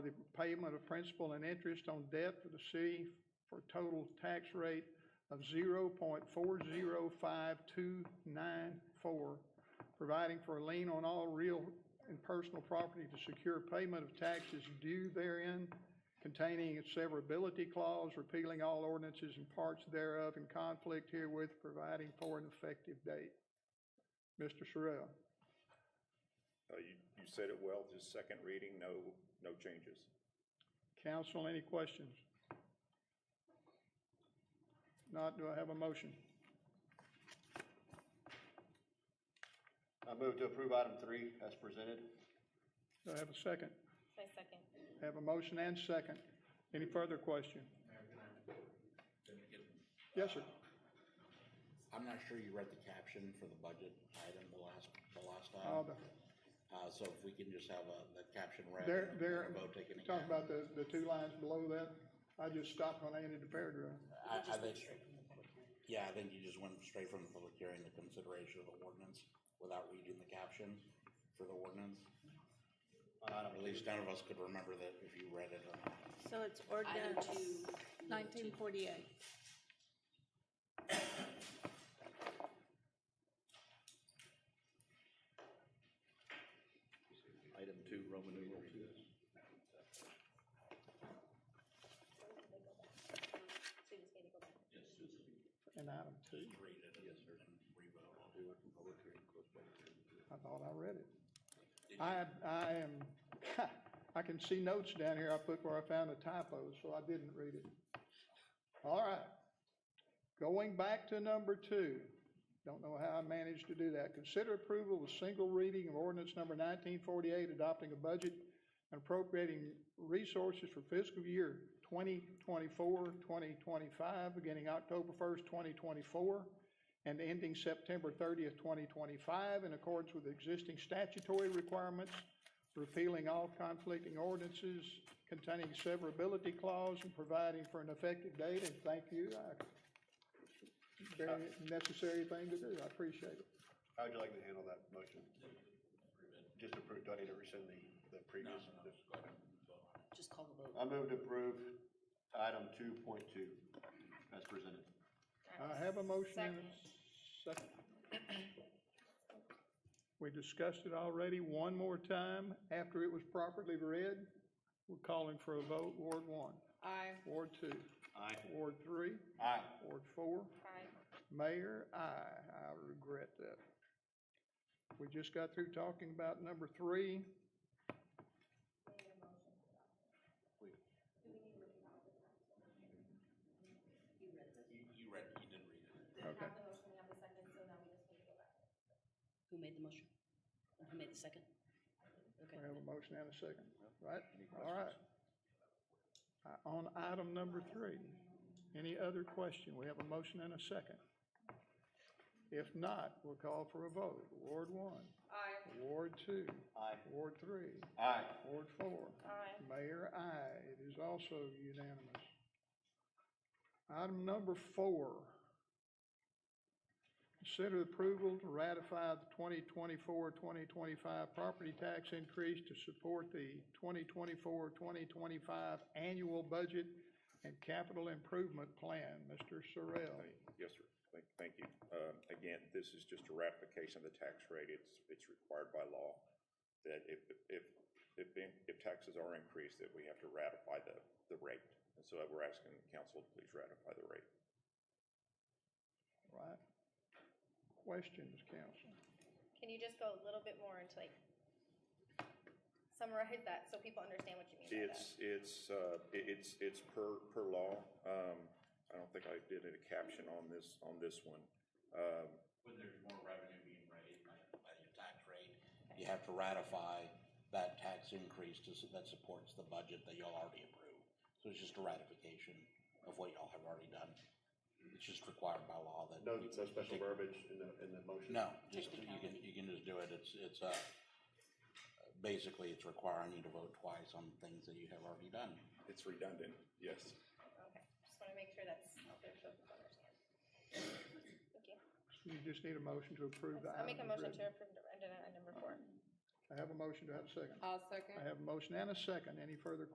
payment of principal and interest on debt to the city for a total tax rate of zero point four zero five two nine four, providing for a lien on all real and personal property to secure payment of taxes due therein, containing a severability clause, repealing all ordinances and parts thereof in conflict herewith, providing for an effective date. Mr. Sorrell. Uh, You, you said it well, just second reading, no, no changes. Council, any questions? Not, do I have a motion? I move to approve item three as presented. Do I have a second? I second. Have a motion and second. Any further question? Yes, sir. I'm not sure you read the caption for the budget item the last, the last Uh, time. the- Uh, so if we can just have a, the caption read. There, and there, a vote taken talking again. about the, the two lines below that, I just stopped when I ended the paragraph. I, I think, yeah, I think you just went straight from the public hearing to consideration of the ordinance without reading the caption for the ordinance. At least none of us could remember that if you read it or not. So it's ordinance nineteen forty-eight. Item two, Roman numeral two. So you just need to go back. And item two, Read it and and re-vote on it. I thought I read it. I, I am, I can see notes down here I put where I found the typos, so I didn't read it. All right. Going back to number two. Don't know how I managed to do that. Consider approval of single reading of ordinance number nineteen forty-eight, adopting a budget and appropriating resources for fiscal year 2024, 2025, beginning October first, twenty twenty-four, and ending September thirtieth, twenty twenty-five, in accordance with existing statutory requirements, repealing all conflicting ordinances containing severability clause and providing for an effective date, and thank you. I- Very necessary thing to do, I appreciate it. How would you like me to handle that motion? Just approve, do I need to rescind the, the previous? Just call the vote. I move to approve item two point two as presented. I have a motion and a second. We discussed it already one more time after it was properly read. We're calling for a vote, Ward one, Aye. Ward two, Aye. Ward three, Aye. Ward four, Aye. Mayor, aye. I regret that. We just got through talking about number three. You, you read, you didn't read it. We have the motion, we have the second, so now we just need to go back. Who made the motion? Who made the second? Okay. We have a motion and a second, right? All right. Uh, On item number three, any other question? We have a motion and a second. If not, we'll call for a vote. Ward one, Aye. Ward two, Aye. Ward three, Aye. Ward four. Aye. Mayor, aye. It is also unanimous. Item number four. Consider approval to ratify the 2024, 2025 property tax increase to support the 2024, 2025 annual budget and capital improvement plan. Mr. Sorrell. Yes, sir. Thank, thank you. Um, Again, this is just a ratification of the tax rate. It's, it's required by law that if, if, if, being- if taxes are increased, that we have to ratify the, the rate. And so we're asking the council to please ratify the rate. Right? Questions, council? Can you just go a little bit more into like summarize that so people understand what you mean by that? It's, it's, uh, it- it's, it's per, per law. Um, I don't think I did a caption on this, on this one. Um, when there's more revenue being raised by, by your tax rate, you have to ratify that tax increase to, s- that supports the budget that y'all already approved. So it's just a ratification of what y'all have already done. It's just required by law that. No, we- no special verbiage in the, in the motion? No, just, you can, you can just do it. It's, it's, uh, basically it's requiring you to vote twice on things that you have already done. It's redundant, yes. Okay, just want to make sure that's out there so people understand. Thank you. You just need a motion to approve the item. I'll make a motion as to written. approve the- agenda item number four. I have a motion. to have a second? I'll second. I have a motion and a second. Any further